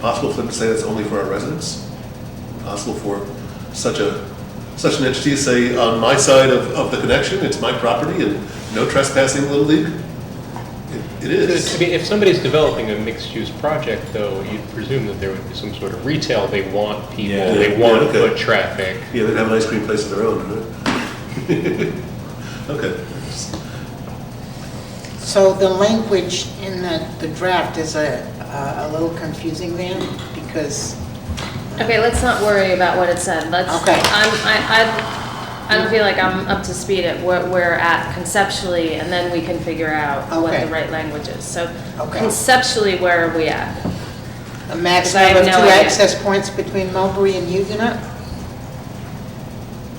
Possible for them to say that's only for our residents? Possible for such a, such an entity to say, on my side of, of the connection, it's my property and no trespassing, Little League? It- It I is. mean, if somebody's developing a mixed-use project, though, you'd presume that there would be some sort of retail, they want people, Yeah. they Yeah, want okay. foot traffic. Yeah, they'd have an ice cream place of their own, right? Okay. So the language in the, the draft is a, a a little confusing then, because, Okay, let's not worry about what it said. Let's, I'm, Okay. I, I, I don't feel like I'm up to speed at where we're at conceptually, and then we can figure out what Okay. the right language is. So Okay. conceptually, where are we at? a I have maximum of no two idea. access points between Mulberry and Huguenot?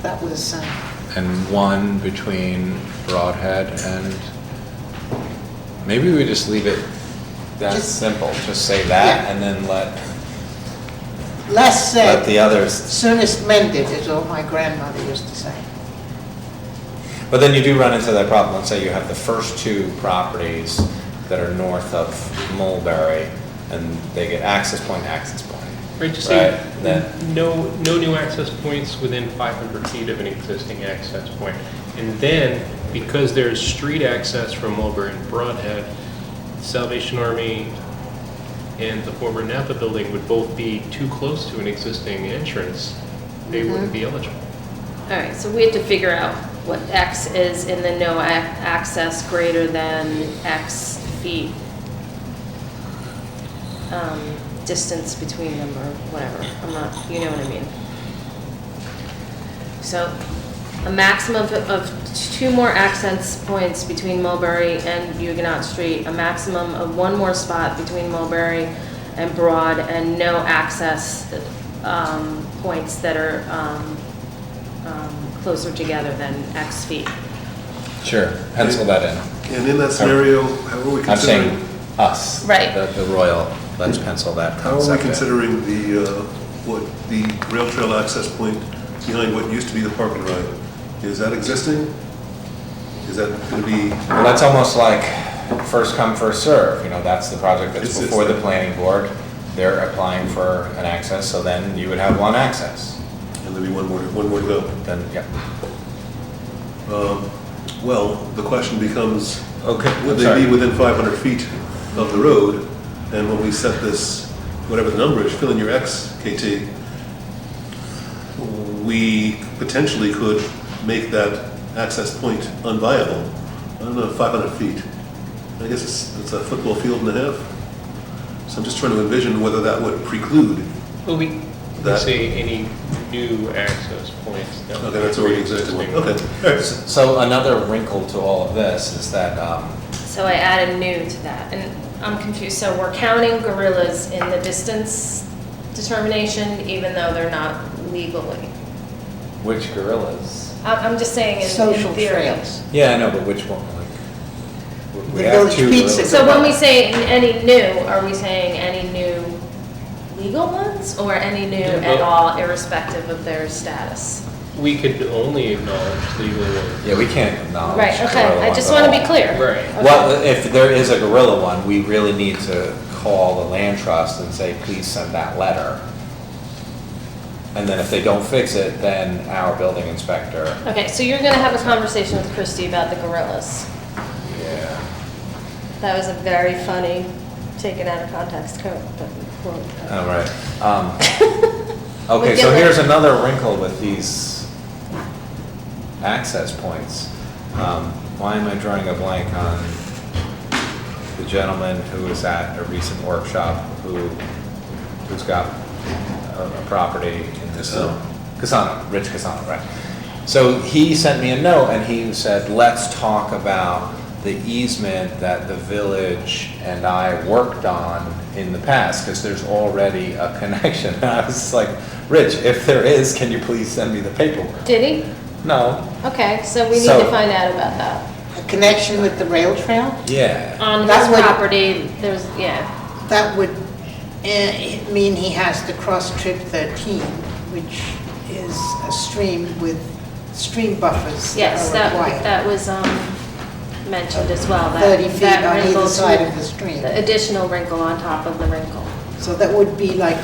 That was, uh, and one between Broadhead and, maybe we just leave it that Just- simple, just say that Yeah. and then let, less let the said, others. soonest mended, is what my grandmother used to say. But then you do run into that problem, let's say you have the first two properties that are north of Mulberry and they get access point, access point. Right, just Right, say, then- no, no new access points within 500 feet of an existing access point. And then, because there's street access from Mulberry and Broadhead, Salvation Army and the former Napa building would both be too close to an existing entrance. They wouldn't be eligible. All right, so we have to figure out what X is in the no ac- access greater than X feet um, distance between them or whatever. I'm not, you know what I mean. So a maximum of- of two more access points between Mulberry and Huguenot Street, a maximum of one more spot between Mulberry and Broad, and no access um, points that are um, um, closer together than X feet. Sure, pencil that in. And in that scenario, how are we I'm saying considering, us. Right. The, the Royal, let's pencil that how are we concept in. considering the, uh, what, the rail trail access point behind what used to be the park and ride? Is that existing? Is that going to be, Well, that's almost like first come, first serve. you know, that's the project that's It's- it's- before the planning board. They're applying for an access, so then you would have one access. and there'll be one more, one more to go? Then, yeah. Um, Well, the question becomes, Okay, would I'm they sorry. be within 500 feet of the road? And when we set this, whatever the number is, fill in your X, KT, we potentially could make that access point unviable. I don't know, 500 feet. I guess it's, it's a football field and a half. So I'm just trying to envision whether that would preclude. Well, we, we That- say any new access points. that would Okay, that's already be existing. pre-existing. Okay, all right. So another wrinkle to all of this is that, um, So I added new to that, and I'm confused, so we're counting gorillas in the distance determination, even though they're not legally. which gorillas? I'm, I'm just saying in- Social in theory. trails. Yeah, I know, but which one, like? we- we The have village two pizza. gorillas. So when we say any new, are we saying any new legal ones, or any new Yeah, at well- all irrespective of their status? We could only acknowledge legal ones. Yeah, we can't acknowledge. Right, okay, gorilla I ones just at want to all. be clear. Right. Well, if there is a gorilla one, we really need to call the land trust and say, please send that letter. And then if they don't fix it, then our building inspector, Okay, so you're gonna have a conversation with Christie about the gorillas. yeah, That was a very funny, taken out of context quote, but quote. all right. Um, Okay, We'll so get here's there. another wrinkle with these access points. Um, Why am I drawing a blank on the gentleman who was at a recent workshop who, who's got a a property in this Casano. zone? Casano, Rich Casano, right. So he sent me a note and he said, let's talk about the easement that the village and I worked on in the past, because there's already a connection. And I was just like, Rich, if there is, can you please send me the paperwork? Did he? No, Okay, so we need So- to find out about that. A connection with the rail trail? yeah, On his That's what- property, there's, yeah, That would eh, mean he has to cross trip 13, which is a stream with stream buffers yes, that that, are required. that was, um, mentioned as well. that- 30 feet that on either wrinkles side with of the stream. Additional wrinkle on top of the wrinkle. So that would be like